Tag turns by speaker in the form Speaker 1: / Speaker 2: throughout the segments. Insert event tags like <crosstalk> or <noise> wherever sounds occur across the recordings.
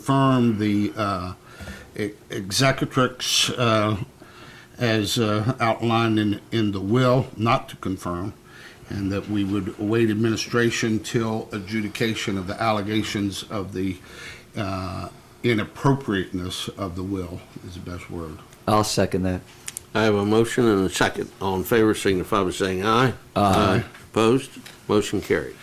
Speaker 1: confirm the uh, e- executrix uh, as uh, outlined in, in the will, not to confirm, and that we would await administration till adjudication of the allegations of the uh, inappropriateness of the will, is the best word.
Speaker 2: I'll second that.
Speaker 3: I have a motion and a second. All in favor signify by saying aye. Aye. Opposed? Motion carried.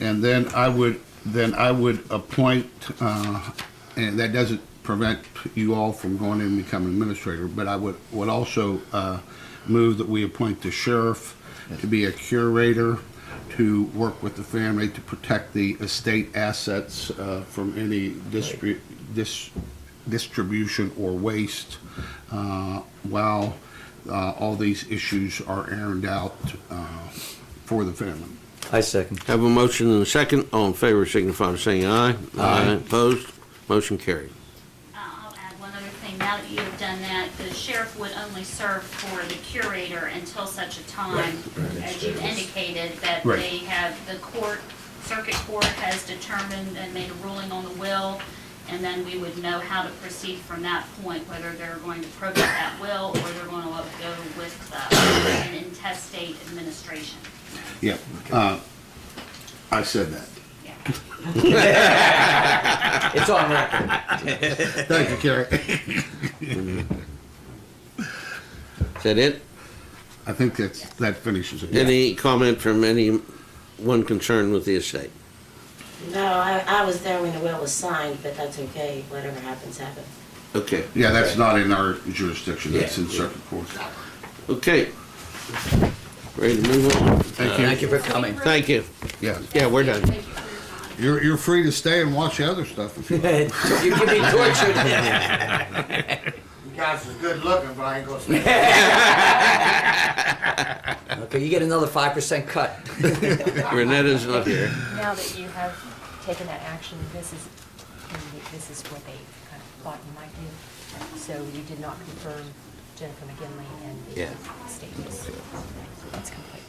Speaker 1: And then I would, then I would appoint, uh, and that doesn't prevent you all from going in and becoming administrator, but I would, would also uh, move that we appoint the sheriff to be a curator, to work with the family, to protect the estate assets uh, from any distri- dis- distribution or waste, uh, while uh, all these issues are ironed out uh, for the family.
Speaker 2: I second.
Speaker 3: Have a motion and a second. All in favor signify by saying aye. Aye. Opposed? Motion carried.
Speaker 4: Uh, I'll add one other thing. Now that you have done that, the sheriff would only serve for the curator until such a time, as you indicated, that
Speaker 1: Right.
Speaker 4: they have, the court, circuit court has determined and made a ruling on the will, and then we would know how to proceed from that point, whether they're going to probate that will or they're going to go with uh, an intestate administration.
Speaker 1: Yep. Uh, I said that.
Speaker 4: Yeah.
Speaker 2: It's on record.
Speaker 1: Thank you, Carrie.
Speaker 3: Is that it?
Speaker 1: I think that's, that finishes it.
Speaker 3: Any comment from anyone concerned with the estate?
Speaker 5: No, I, I was there when the will was signed, but that's okay, whatever happens, happens.
Speaker 3: Okay.
Speaker 1: Yeah, that's not in our jurisdiction, that's in
Speaker 3: Yeah.
Speaker 1: circuit court.
Speaker 3: Okay. Ready to move on?
Speaker 1: Thank you.
Speaker 2: for coming.
Speaker 3: Thank you.
Speaker 1: Yeah,
Speaker 3: Yeah, we're done.
Speaker 4: Thank you for your time.
Speaker 1: you're, you're free to stay and watch the other stuff if you want.
Speaker 2: You can be tortured.
Speaker 6: You guys is good looking, but I ain't gonna say
Speaker 2: <laughs> Okay, you get another five percent cut.
Speaker 3: Renetta's not here.
Speaker 7: Now that you have taken that action, this is, this is what they kind of thought you might do. So you did not confirm Jennifer McGinley and
Speaker 3: Yeah.
Speaker 7: the statements. That's complete.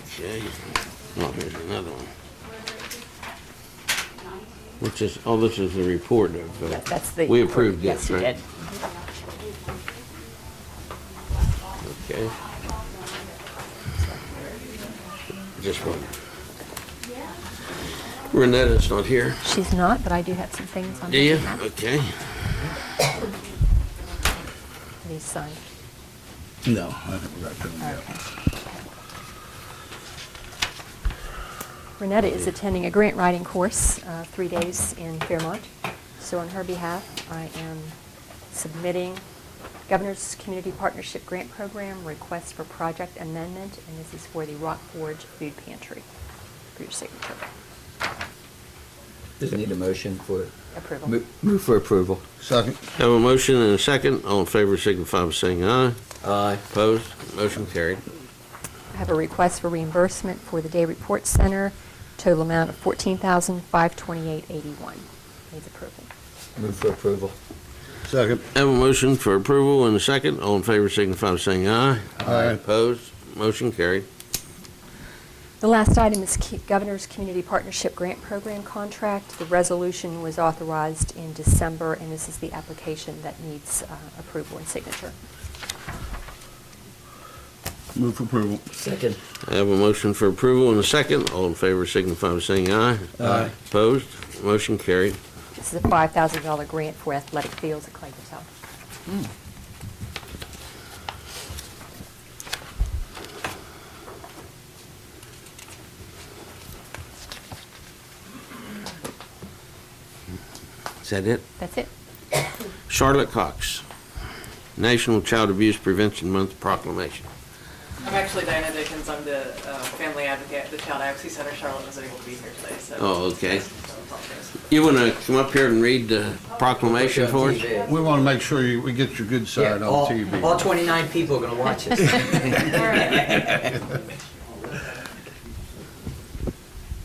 Speaker 3: Okay. Oh, here's another one. Which is, oh, this is the report of. uh,
Speaker 7: That- That's the.
Speaker 3: We approved
Speaker 7: Yes,
Speaker 3: this,
Speaker 7: you
Speaker 3: right?
Speaker 7: did.
Speaker 3: Okay. Just one. Renetta's not here.
Speaker 7: She's not, but I do have some things on.
Speaker 3: Do you?
Speaker 7: that
Speaker 3: Okay.
Speaker 7: These signed.
Speaker 1: No, I think we're
Speaker 7: Okay. Renetta is attending a grant writing course, uh, three days in Fairmont. So on her behalf, I am submitting Governor's Community Partnership Grant Program request for project amendment, and this is for the Rock Forge Food Pantry for your signature
Speaker 2: Does need a motion for,
Speaker 7: approval.
Speaker 2: mo- move for approval.
Speaker 1: Second,
Speaker 3: Have a motion and a second. All in favor signify by saying aye.
Speaker 2: Aye.
Speaker 3: Opposed? Motion carried.
Speaker 7: I have a request for reimbursement for the Day Report Center, total amount of fourteen thousand five twenty-eight eighty-one. Needs approval.
Speaker 2: Move for approval.
Speaker 1: second.
Speaker 3: Have a motion for approval and a second. All in favor signify by saying aye.
Speaker 1: Aye.
Speaker 3: Opposed? Motion carried.
Speaker 7: The last item is Ki- Governor's Community Partnership Grant Program contract. The resolution was authorized in December, and this is the application that needs uh, approval and signature.
Speaker 1: Move for approval.
Speaker 2: Second.
Speaker 3: I have a motion for approval and a second. All in favor signify by saying aye.
Speaker 2: Aye.
Speaker 3: Opposed? Motion carried.
Speaker 7: This is a $5,000 grant for athletic fields at Clay South.
Speaker 3: Is that it?
Speaker 7: That's it.
Speaker 3: Charlotte Cox, National Child Abuse Prevention Month proclamation.
Speaker 8: I'm actually Diana Dickens. I'm the uh, family advocate at the Child Advocacy Center. Charlotte was able to be here today, so.
Speaker 3: Oh,
Speaker 8: <laughs>
Speaker 3: okay.
Speaker 8: So apologize.
Speaker 3: You want to come up here and read the proclamation for us?
Speaker 1: We want to make sure you, we get your good side
Speaker 2: Yeah, all,
Speaker 1: on TV.
Speaker 2: all twenty-nine people are gonna watch <laughs> this.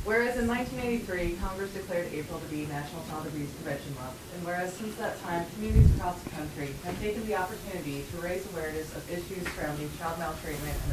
Speaker 9: Whereas in 1983, Congress declared April to be National Child Abuse Prevention Month, and whereas since that time, communities across the country have taken the opportunity to raise awareness of issues surrounding child maltreatment and